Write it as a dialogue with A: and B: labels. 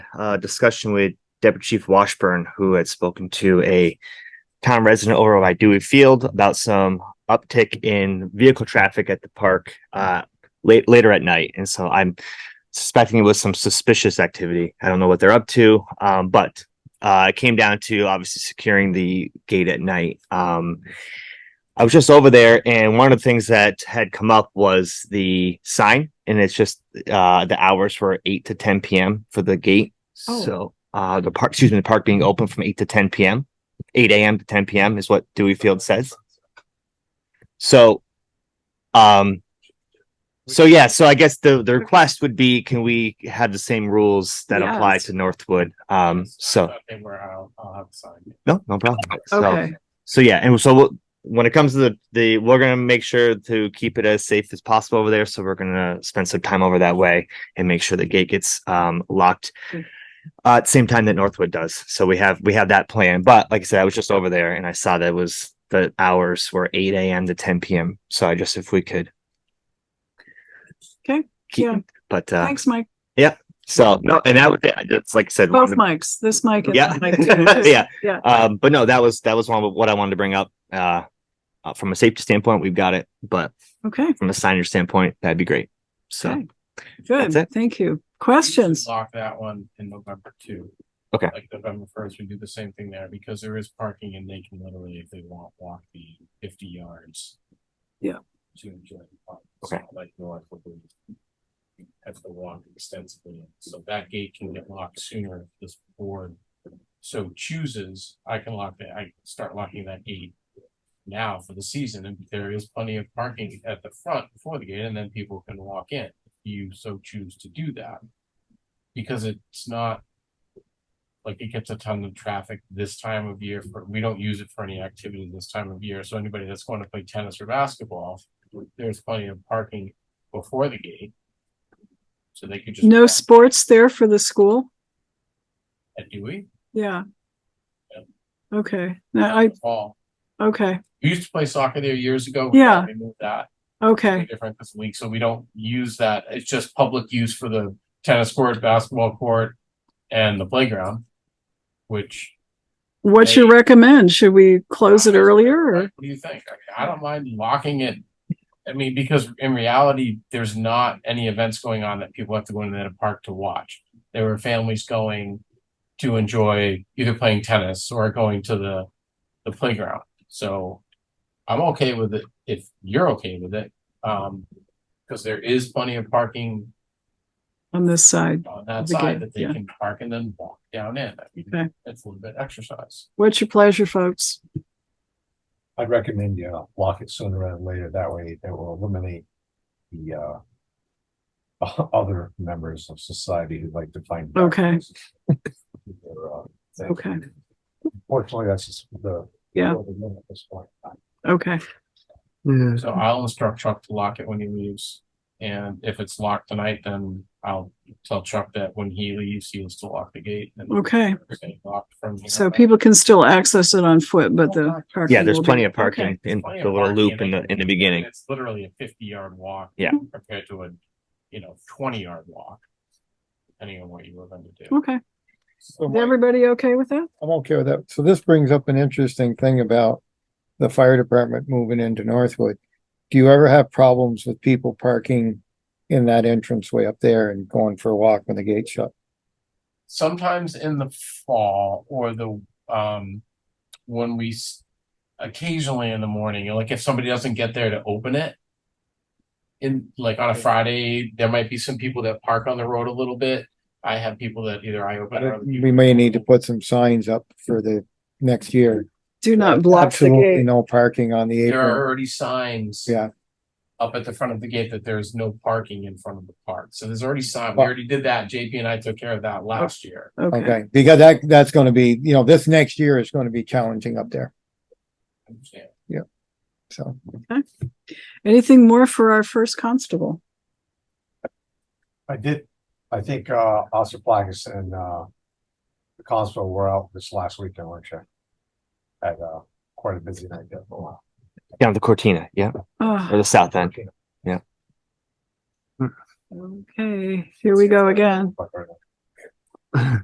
A: uh, discussion with Deputy Chief Washburn, who had spoken to a town resident over by Dewey Field about some uptick in vehicle traffic at the park uh, late later at night. And so I'm suspecting it was some suspicious activity. I don't know what they're up to, um, but uh, it came down to obviously securing the gate at night. Um, I was just over there, and one of the things that had come up was the sign, and it's just uh, the hours were eight to ten p.m. for the gate.
B: Oh.
A: So uh, the park, excuse me, the park being open from eight to ten p.m. 8 a.m. to 10 p.m. is what Dewey Field says. So, um, so yeah, so I guess the, the request would be, can we have the same rules that apply
B: Yes.
A: to Northwood? Um, so,
C: They were, I'll, I'll have to sign.
A: no, no problem. So,
B: Okay,
A: so yeah, and so we'll- when it comes to the, the, we're gonna make sure to keep it as safe as possible over there. So we're gonna spend some time over that way and make sure the gate gets, um, locked
B: Good.
A: uh, at the same time that Northwood does. So we have, we have that plan. But like I said, I was just over there and I saw that it was the hours were eight AM to ten PM. So I just, if we could.
B: Okay,
A: keep-
B: yeah.
A: But, uh,
B: thanks, Mike.
A: so no, and that would, be- it's like I said.
B: Both
A: one of-
B: mics, this mic and
A: Yeah.
B: that mic. too.
A: Yeah.
B: Yeah.
A: Um, but no, that was, that was one of what I wanted to bring up. Uh, uh, from a safety standpoint, we've got it, but
B: Okay,
A: from a signage standpoint, that'd be great. So,
B: Okay. good.
A: That's it.
B: Thank you. Questions?
C: Lock that one in November too.
A: Okay.
C: Like November first, we do the same thing there because there is parking and they can literally, if they want, walk the fifty yards.
B: Yeah.
C: To enjoy the park. It's
A: Okay.
C: not Like North would be. Have to walk extensively, so that gate can get locked sooner if this board so chooses, I can lock that, I can start locking that gate. Now for the season, and there is plenty of parking at the front before the gate, and then people can walk in, if you so choose to do that. Because it's not. Like it gets a ton of traffic this time of year, for, we don't use it for any activity this time of year, so anybody that's going to play tennis or basketball. There's plenty of parking before the gate. So they could just.
B: No sports there for the school?
C: At Dewey.
B: Yeah.
C: Yeah.
B: Okay, now I,
C: Fall.
B: okay,
C: We used to play soccer there years ago.
B: Yeah.
C: We moved that
B: okay,
C: different this week, so we don't use that. It's just public use for the tennis court, basketball court, and the playground. Which.
B: what you recommend? Should we close it earlier or?
C: What do you think? I mean, I don't mind locking it. I mean, because in reality, there's not any events going on that people have to go into the park to watch. There were families going to enjoy either playing tennis or going to the, the playground. So I'm okay with it if you're okay with it. Um, because there is plenty of parking
B: On this side,
C: on that
B: The
C: side
B: gate,
C: that they
B: yeah.
C: can park and then walk down in. I mean,
B: okay.
C: It's a little bit exercise.
B: What's your pleasure, folks?
D: I'd recommend you lock it sooner rather than later. That way it will eliminate the uh. o- Other members of society who'd like to find.
B: Okay.
D: Their, uh, thing.
B: Okay,
D: Fortunately, that's just the.
B: Yeah.
D: the limit at this point.
B: okay,
C: So I'll instruct Chuck to lock it when he leaves. And if it's locked tonight, then I'll tell Chuck that when he leaves, he has to lock the gate. and
B: okay.
C: stay locked from here
B: So
C: on out.
B: people can still access it on foot, but the parking.
A: yeah, there's
B: will be-
A: plenty of
B: Okay.
A: parking in
C: Plenty
A: the
C: of
A: little
C: parking
A: loop in the,
C: it.
A: in the beginning.
C: It's literally a fifty yard walk.
A: Yeah.
C: Compared to a, you know, twenty yard walk. Depending on what you were going to do.
B: Okay,
E: So
B: Is everybody okay with that?
E: I'm okay with that. So this brings up an interesting thing about the fire department moving into Northwood. Do you ever have problems with people parking in that entrance way up there and going for a walk when the gate shut?
C: sometimes in the fall or the um when we s- occasionally in the morning like if somebody doesn't get there to open it in like on a friday there might be some people that park on the road a little bit i have people that either i open or other
E: We
C: people-
E: may need to put some signs up for the next year.
B: Do not block the
E: Absolutely
B: gate.
E: No parking on the
C: there are
E: apron.
C: already signs
E: Yeah.
C: up at the front of the gate that there's no parking in front of the park so there's already sign we already did that jp and i took care of that last year
B: Okay,
E: Okay, because that, that's gonna be, you know, this next year is gonna be challenging up there,
C: Understand.
E: so.
B: anything more for our first constable?
D: I did, I think uh Officer Plagas and uh. The constable were out this last weekend, weren't you? Had uh quite a busy night there for a while.
A: Down the Cortina, yeah, or
B: Ah,
A: the south end.
B: okay, here we go again.
D: But, uh,